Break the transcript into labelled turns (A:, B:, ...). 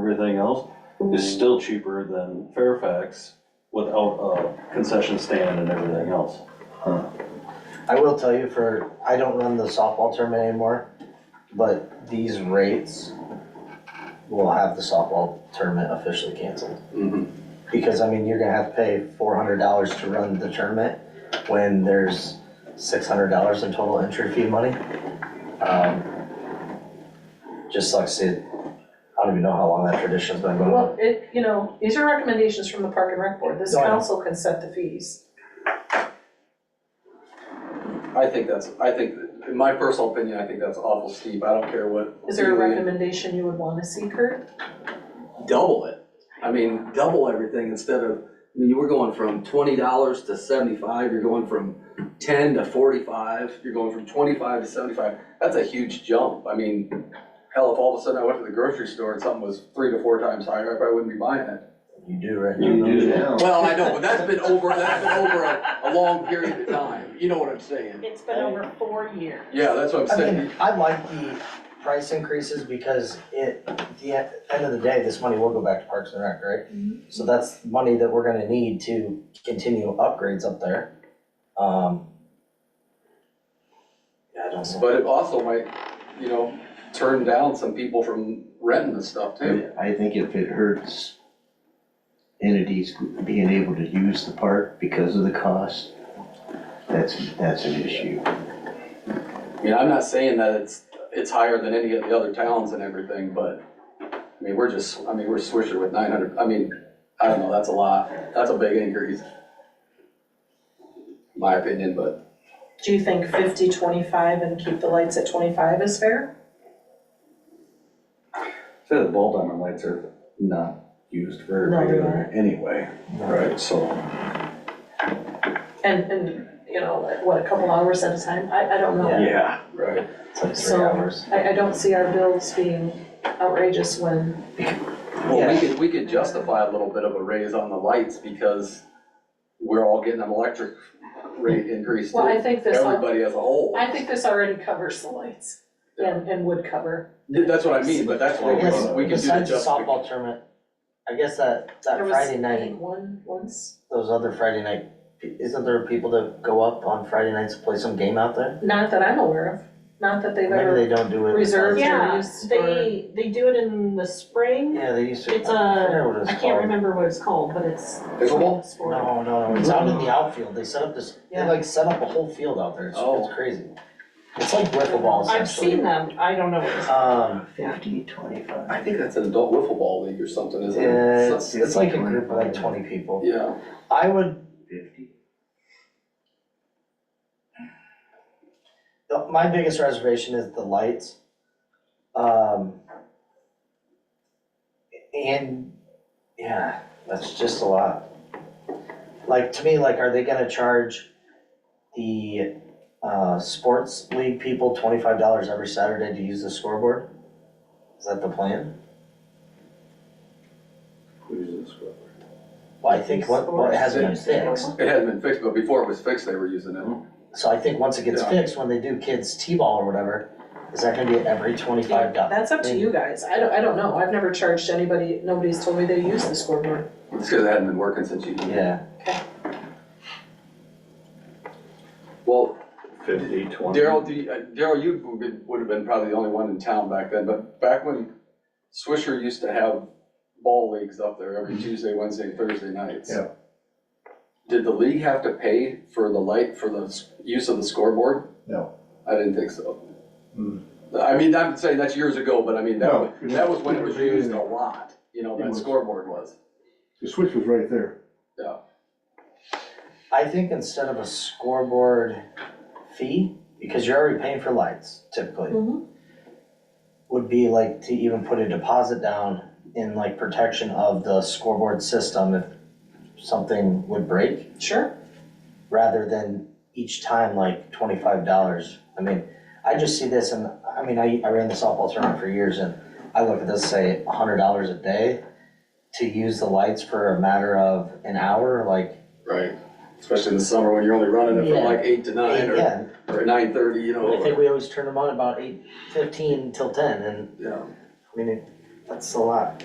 A: everything else, is still cheaper than Fairfax without a concession stand and everything else.
B: I will tell you for, I don't run the softball tournament anymore, but these rates will have the softball tournament officially canceled.
A: Mm-hmm.
B: Because I mean, you're gonna have to pay four hundred dollars to run the tournament when there's six hundred dollars in total entry fee money. Um, Just like I said, I don't even know how long that tradition's been going on.
C: Well, it, you know, these are recommendations from the Park and Rec Board, this
B: No, I know.
C: council can set the fees.
D: I think that's, I think, in my personal opinion, I think that's awful steep, I don't care what.
C: Is there a
D: really-
C: recommendation you would wanna see, Kurt?
D: Double it, I mean, double everything instead of, I mean, you were going from twenty dollars to seventy-five, you're going from ten to forty-five, you're going from twenty-five to seventy-five, that's a huge jump, I mean, hell, if all of a sudden I went to the grocery store and something was three to four times higher, I probably wouldn't be buying it.
B: You do right now.
A: You
B: don't
A: do
B: you?
A: now.
D: Well, I know, but that's been over, that's been over a, a long period of time, you know what I'm saying?
E: It's been over four years.
D: Yeah, that's what I'm
B: I
D: saying,
B: mean, I like the price increases because it, at the e- end of the day, this money will go back to Parks and Rec, right? So that's money that we're gonna need to continue upgrades up there. Um. Yeah, I don't know.
D: But it also might, you know, turn down some people from renting the stuff too.
F: I think if it hurts entities being able to use the park because of the cost, that's, that's an issue.
D: I mean, I'm not saying that it's, it's higher than any of the other towns and everything, but, I mean, we're just, I mean, we're Swisher with nine hundred, I mean, I don't know, that's a lot, that's a big increase. My opinion, but
C: Do you think fifty, twenty-five, and keep the lights at twenty-five is fair?
A: Say the ball diamond lights are not used very
C: No, they're
A: regular anyway, right, so.
C: And, and, you know, like, what, a couple hours at a time, I, I don't know.
B: Yeah.
A: Yeah.
D: right,
B: It's like three
C: So-
B: hours.
C: I, I don't see our bills being outrageous when,
D: well, we could, we could justify a little bit of a raise on the lights because we're all getting an electric rate increase
C: well, I
D: too.
C: think this, al-
D: Everybody as a whole.
C: I think this already covers the lights and, and would cover.
D: Th- That's what I mean, but that's where we
B: Yes,
D: can, we can do the
B: Besides the
D: justification.
B: softball tournament, I guess that, that
C: There was,
B: Friday
C: I
B: night,
C: think, one, once,
B: those other Friday night, isn't there people that go up on Friday nights to play some game out there?
C: not that I'm aware of, not that they've ever.
B: Maybe they don't do it.
C: reserved or
E: Yeah,
C: used for,
E: they, they do it in the spring.
B: Yeah, they used to.
E: It's
B: I
E: a-
B: forget what it was
E: I can't
B: called.
E: remember what it's called, but it's.
D: Pickleball?
E: it's for-
B: No, no, it's out in the outfield, they set up this, they
C: Yeah.
B: like set up a whole field out there, it's,
D: Oh.
B: it's crazy. It's like wiffle ball
E: I've
B: essentially.
E: seen them, I don't know what it's.
B: Um,
F: Fifty, twenty-five.
D: I think that's an adult wiffle ball league or something, isn't it?
B: yeah,
D: So-
B: it's, it's like a group of like twenty people.
D: Yeah,
B: I would,
F: Fifty?
B: the- my biggest reservation is the lights. Um. And, yeah, that's just a lot. Like, to me, like, are they gonna charge the, uh, sports league people twenty-five dollars every Saturday to use the scoreboard? Is that the plan? Well, I think what, what hasn't been fixed,
D: it hasn't been fixed, but before it was fixed, they were using it.
B: so I think once it gets
D: Yeah.
B: fixed, when they do kids' T-ball or whatever, is that gonna be every twenty-five dollars?
C: That's up to you guys, I don't, I don't know, I've never charged anybody, nobody's told me they use the scoreboard.
D: It's because it hadn't been working since you.
B: Yeah,
D: Well,
A: Fifty, twenty.
D: Daryl, do you- uh, Daryl, you would be- would have been probably the only one in town back then, but back when Swisher used to have ball leagues up there every Tuesday, Wednesday, and Thursday nights.
F: Yeah.
D: Did the league have to pay for the light, for the s- use of the scoreboard?
F: No.
D: I didn't think so.
F: Hmm.
D: I mean, I'm saying that's years ago, but I mean, that
G: No,
D: was,
G: it
D: that
G: was-
D: was when it was used a lot, you know,
G: It
D: that
G: was.
D: scoreboard was.
G: The switch was right there.
B: I think instead of a scoreboard fee, because you're already paying for lights typically,
C: Mhm.
B: would be like to even put a deposit down in like protection of the scoreboard system if something would break.
C: Sure,
B: rather than each time like twenty-five dollars. I mean, I just see this and, I mean, I, I ran the softball tournament for years and I look at this, say, a hundred dollars a day to use the lights for a matter of an hour, like,
D: Right. Especially in the summer when you're only running it
B: Yeah.
D: from like eight to nine or,
B: yeah.
D: or nine thirty, you
B: I think
D: know,
B: we always turn them on about eight fifteen till ten and,
D: yeah.
B: I mean, it- that's a lot.